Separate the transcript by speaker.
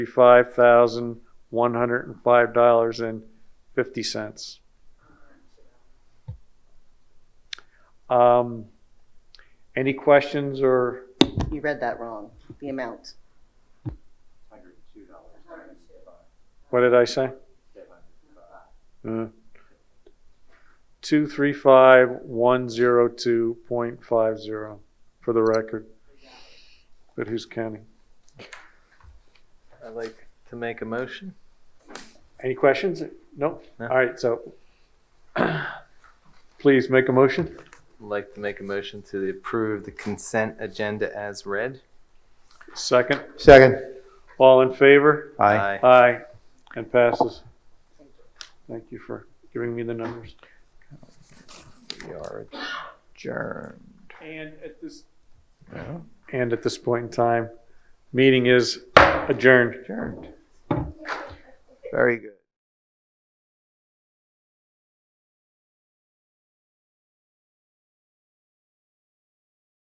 Speaker 1: Five thousand one hundred and five dollars and fifty cents. Um, any questions or,
Speaker 2: You read that wrong, the amount.
Speaker 1: what did I say? Uh, Two, three, five, one, zero, two, point five zero, for the record. But who's counting?
Speaker 3: I'd like to make a motion.
Speaker 1: Any questions? No?
Speaker 3: No.
Speaker 1: All right, so please make a motion.
Speaker 3: I'd like to make a motion to approve the consent agenda as read.
Speaker 1: Second,
Speaker 4: Second.
Speaker 1: all in favor?
Speaker 4: Aye.
Speaker 1: Aye, and passes. Thank you for giving me the numbers.
Speaker 4: We are adjourned.
Speaker 1: And at this.
Speaker 4: Yeah.
Speaker 1: And at this point in time, meeting is adjourned.
Speaker 4: Adjourned. Very good.